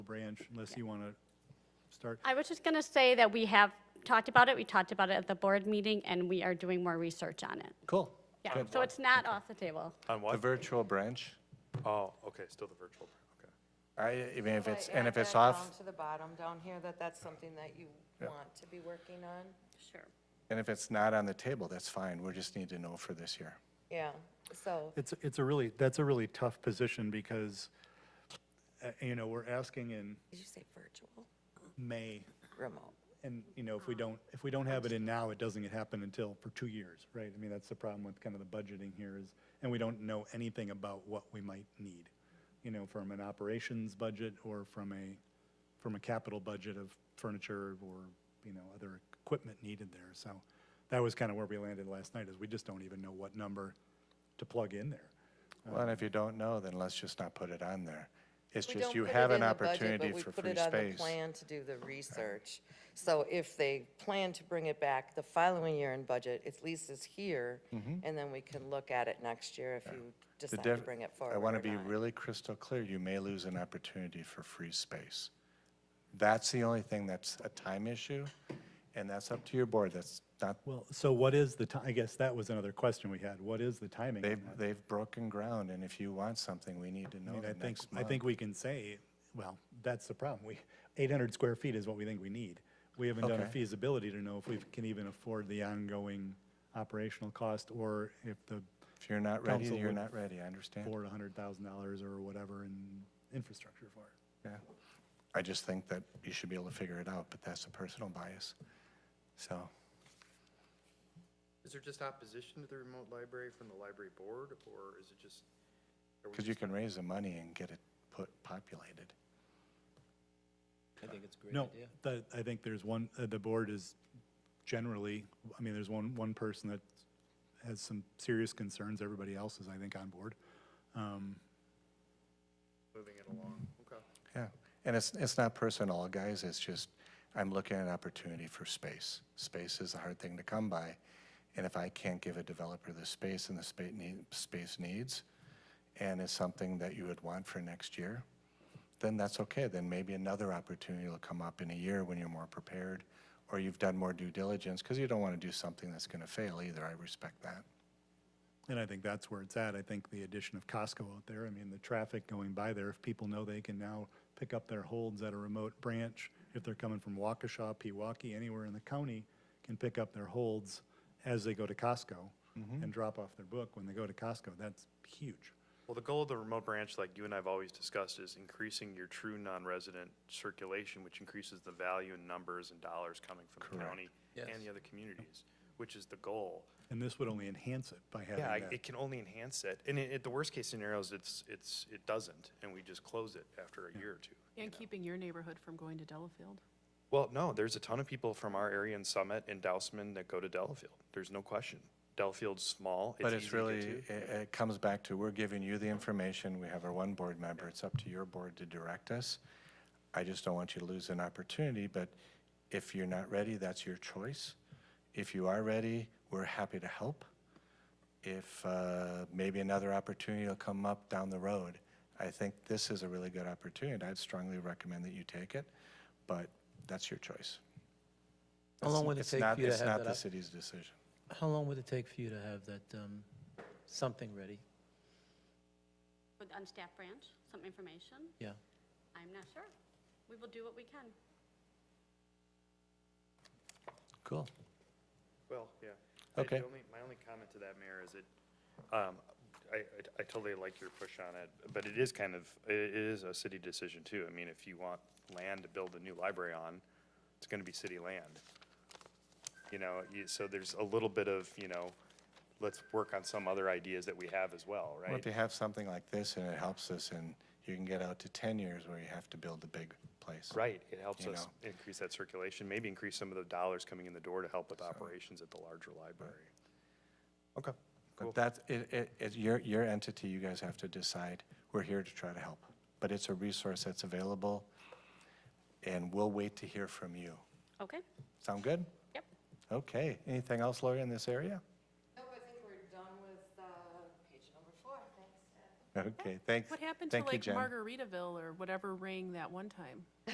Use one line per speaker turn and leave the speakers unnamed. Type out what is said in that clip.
branch unless you want to start.
I was just going to say that we have talked about it, we talked about it at the board meeting, and we are doing more research on it.
Cool.
Yeah, so it's not off the table.
On
The
what?
virtual branch,
Oh, okay, still the virtual, okay.
I, I mean, if
Can I
it's, and
add
if it's
that
off,
Down to the bottom down here, that that's something that you want to be working on.
Sure.
and if it's not on the table, that's fine. We just need to know for this year.
Yeah, so,
It's, it's a really, that's a really tough position because, uh, you know, we're asking in
did you say virtual?
May,
Remote.
and, you know, if we don't, if we don't have it in now, it doesn't happen until for two years, right? I mean, that's the problem with kind of the budgeting here is, and we don't know anything about what we might need, you know, from an operations budget or from a, from a capital budget of furniture or, you know, other equipment needed there. So that was kind of where we landed last night, is we just don't even know what number to plug in there.
Well, and if you don't know, then let's just not put it on there. It's
We
just
don't
you
put it
have
in
an
the budget, but
opportunity
we
for
put
free
it on the
space.
Plan to do the research. So if they plan to bring it back the following year in budget, at least it's here, and then we can look at it next year if you
Mm-hmm. The
decide to
def-
bring it forward
I want to
or
be
not.
really crystal clear, you may lose an opportunity for free space. That's the only thing that's a time issue, and that's up to your board. That's not,
Well, so what is the ti, I guess that was another question we had. What is the timing? on
they've,
that?
they've broken ground, and if you want something, we need to
I
know
mean, I
the
think,
next
I
month.
think we can say, well, that's the problem. We, eight hundred square feet is what we think we need. We haven't done a
Okay.
feasibility to know if we can even afford the ongoing operational cost or if the
If you're not ready,
council
you're
would
not ready, I understand.
board a hundred thousand dollars or whatever in infrastructure for it.
Yeah. I just think that you should be able to figure it out, but that's a personal bias. So,
Is there just opposition to the remote library from the library board, or is it just? are we
because you
just-
can raise the money and get it put, populated.
I think it's a great
No,
idea.
the, I think there's one, uh, the board is generally, I mean, there's one, one person that has some serious concerns. Everybody else is, I think, on board. Um,
Moving it along, okay.
Yeah, and it's, it's not personal, guys, it's just, I'm looking at an opportunity for space. Space is a hard thing to come by, and if I can't give a developer the space and the space need, space needs, and it's something that you would want for next year, then that's okay, then maybe another opportunity will come up in a year when you're more prepared, or you've done more due diligence, because you don't want to do something that's going to fail either, I respect that.
And I think that's where it's at. I think the addition of Costco out there, I mean, the traffic going by there, if people know they can now pick up their holds at a remote branch, if they're coming from Waukesha, Pewaukee, anywhere in the county, can pick up their holds as they go to Costco
Mm-hmm.
and drop off their book when they go to Costco. That's huge.
Well, the goal of the remote branch, like you and I have always discussed, is increasing your true non-resident circulation, which increases the value in numbers and dollars coming from the county and the other communities, which is the goal.
And this would only enhance it by having
Yeah, I-
that.
it can only enhance it, and it, it- the worst-case scenario is it's, it's, it doesn't, and we just close it after a year or two.
And keeping your neighborhood from going to Delafield.
Well, no, there's a ton of people from our area in Summit and Dousman that go to Delafield. There's no question. Delafield's small.
But
easy
it's
to get
really,
to.
it, it comes back to, we're giving you the information, we have our one board member, it's up to your board to direct us. I just don't want you to lose an opportunity, but if you're not ready, that's your choice. If you are ready, we're happy to help. If, uh, maybe another opportunity will come up down the road. I think this is a really good opportunity, I'd strongly recommend that you take it, but that's your choice.
How
It's-
long would it
it's
take
not-
for you to
It's
have
not
that
the
up?
city's decision.
How long would it take for you to have that, um, something ready?
With unstaffed branch, some information?
Yeah.
I'm not sure. We will do what we can.
Cool.
Well, yeah. I- the
Okay.
only- My only comment to that, Mayor, is it, um, I, I- I totally like your push on it, but it is kind of, it it is a city decision too. I mean, if you want land to build a new library on, it's gonna be city land. You know, you, so there's a little bit of, you know, let's work on some other ideas that we have as well,
Well, if
right?
you have something like this and it helps us and you can get out to 10 years where you have to build a big place.
Right, it helps
You
us
know.
increase that circulation, maybe increase some of the dollars coming in the door to help with operations at the larger library. Okay.
But that's, it, it, it's your, your entity, you guys have to decide. We're here to try to help. But it's a resource that's available and we'll wait to hear from you.
Okay?
Sound good?
Yep.
Okay. Anything else, Lori, in this area?
Nope, I think we're done with page number four, thanks.
Okay, thanks.
What happened to
Thank you,
like
Jen.
Margaritaville or whatever ring that one time?